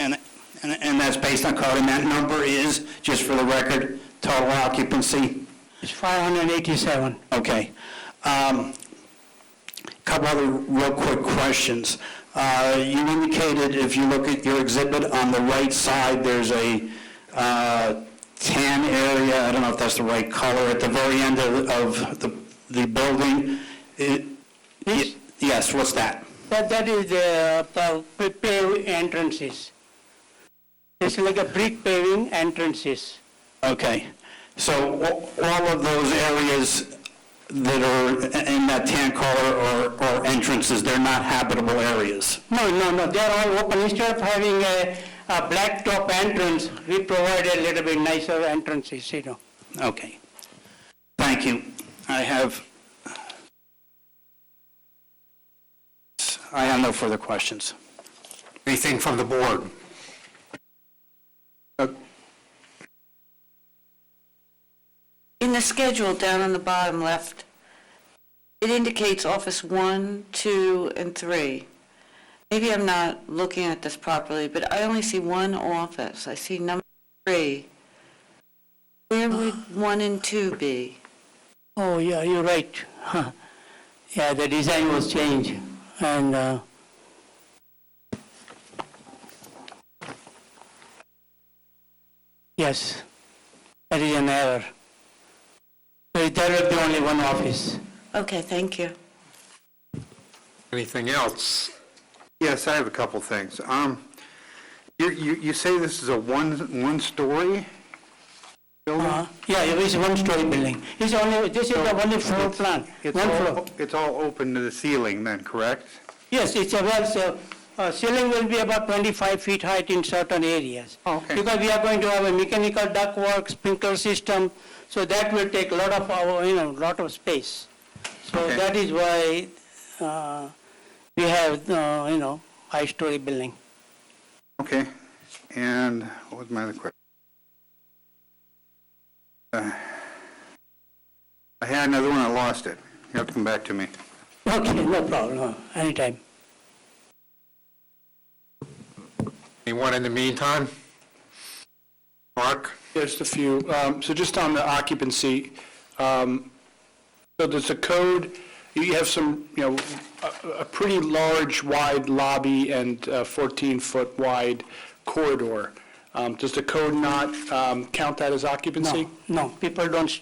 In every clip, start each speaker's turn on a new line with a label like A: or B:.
A: And, and and that's based on code, and that number is, just for the record, total occupancy?
B: It's 587.
A: Okay. Um, Couple other real quick questions. Uh, You indicated, if you look at your exhibit, on the right side, there's a uh, tan area, I don't know if that's the right color, at the very end of of the the building. It-
B: This?
A: Yes, what's that?
B: That, that is the pa- pa- paved entrances. It's like a brick paving entrances.
A: Okay, so a- all of those areas that are in that tan color or- or entrances, they're not habitable areas?
B: No, no, no, they are all open. Instead of having a, a blacktop entrance, we provide a little bit nicer entrances, you know.
A: Okay. Thank you. I have, I have no further questions.
C: Anything from the board?
D: In the schedule down on the bottom left, it indicates office one, two, and three. Maybe I'm not looking at this properly, but I only see one office. I see number three. Where would one and two be?
B: Oh, yeah, you're right. Huh. Yeah, the design was changed, and, uh, yes, that is an error. So that will be only one office.
D: Okay, thank you.
C: Anything else? Yes, I have a couple things. Um, You, you you say this is a one, one-story
B: Uh,
C: building?
B: Yeah, it is one-story building. It's only, this is the only floor plan,
C: It's
B: one floor.
C: all, it's all open to the ceiling then, correct?
B: Yes, it's a, well, so, uh, ceiling will be about 25 feet height in certain areas.
C: Okay.
B: Because we are going to have a mechanical ductwork, sprinkler system, so that will take a lot of our, you know, lot of space. So
C: Okay.
B: that is why uh, we have, uh, you know, high-story building.
C: Okay. And what was my other question? Uh, I had another one, I lost it. You have to come back to me.
B: Okay, no problem, uh, anytime.
C: Anyone in the meantime? Mark?
E: Just a few. Um, So just on the occupancy, um, so does the code, you have some, you know, a- a pretty large wide lobby and 14-foot wide corridor. Um, Does the code not um, count that as occupancy?
B: No, no, people don't s-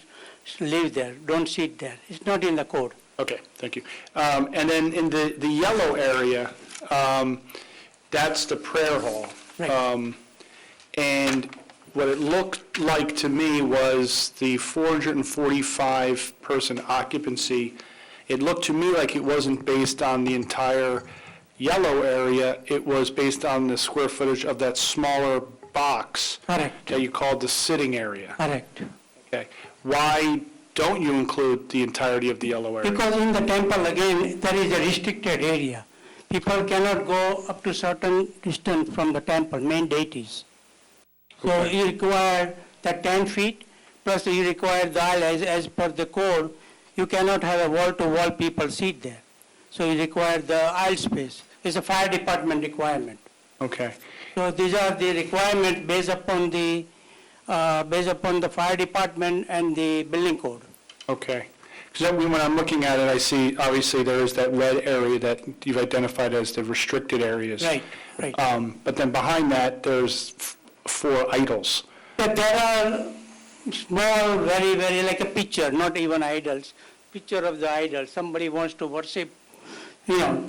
B: s- live there, don't sit there. It's not in the code.
E: Okay, thank you. Um, And then in the, the yellow area, um, that's the prayer hall.
B: Right.
E: Um, And what it looked like to me was the 445-person occupancy. It looked to me like it wasn't based on the entire yellow area. It was based on the square footage of that smaller box
B: Correct,
E: that you called the sitting area.
B: correct.
E: Okay. Why don't you include the entirety of the yellow area?
B: Because in the temple, again, there is a restricted area. People cannot go up to certain distance from the temple, main deities. So you require the 10 feet, plus you require the aisle as, as per the code. You cannot have a wall-to-wall people sit there. So you require the aisle space. It's a fire department requirement.
E: Okay.
B: So these are the requirements based upon the, uh, based upon the fire department and the building code.
E: Okay. Because when I'm looking at it, I see, obviously, there is that red area that you've identified as the restricted areas.
B: Right, right.
E: Um, But then behind that, there's f- four idols.
B: But there are small, very, very, like a picture, not even idols, picture of the idol, somebody wants to worship, you know,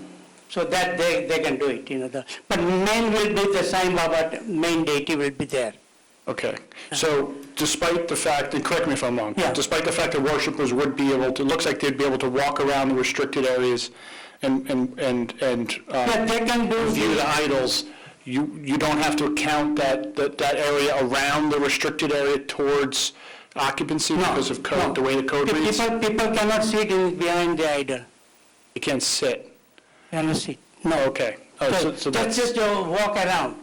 B: so that they, they can do it, you know, the, but main will be the Sai Baba, main deity will be there.
E: Okay. So despite the fact, and correct me if I'm wrong.
B: Yeah.
E: Despite the fact that worshipers would be able to, it looks like they'd be able to walk around the restricted areas and, and, and and
B: But
E: uh,
B: they can do,
E: view the
B: the-
E: idols, you, you don't have to account that, that that area around the restricted area towards occupancy because of
B: no.
E: code, the way the code reads?
B: people, people cannot sit in behind the idol,
E: You can't sit.
B: cannot sit.
E: No, okay. Oh, so-
B: So
E: so
B: that's
E: that's,
B: just to walk around.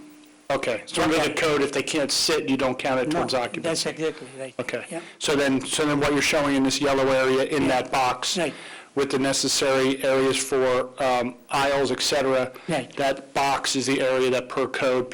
E: okay. So under the code, if they can't sit, you don't count it
B: No,
E: towards occupancy?
B: That's exactly right. Yeah.
E: Okay. So then, so then what you're showing in this yellow area in that box?
B: Right.
E: With the necessary areas for um, aisles, et cetera?
B: Right.
E: That box is the area that per code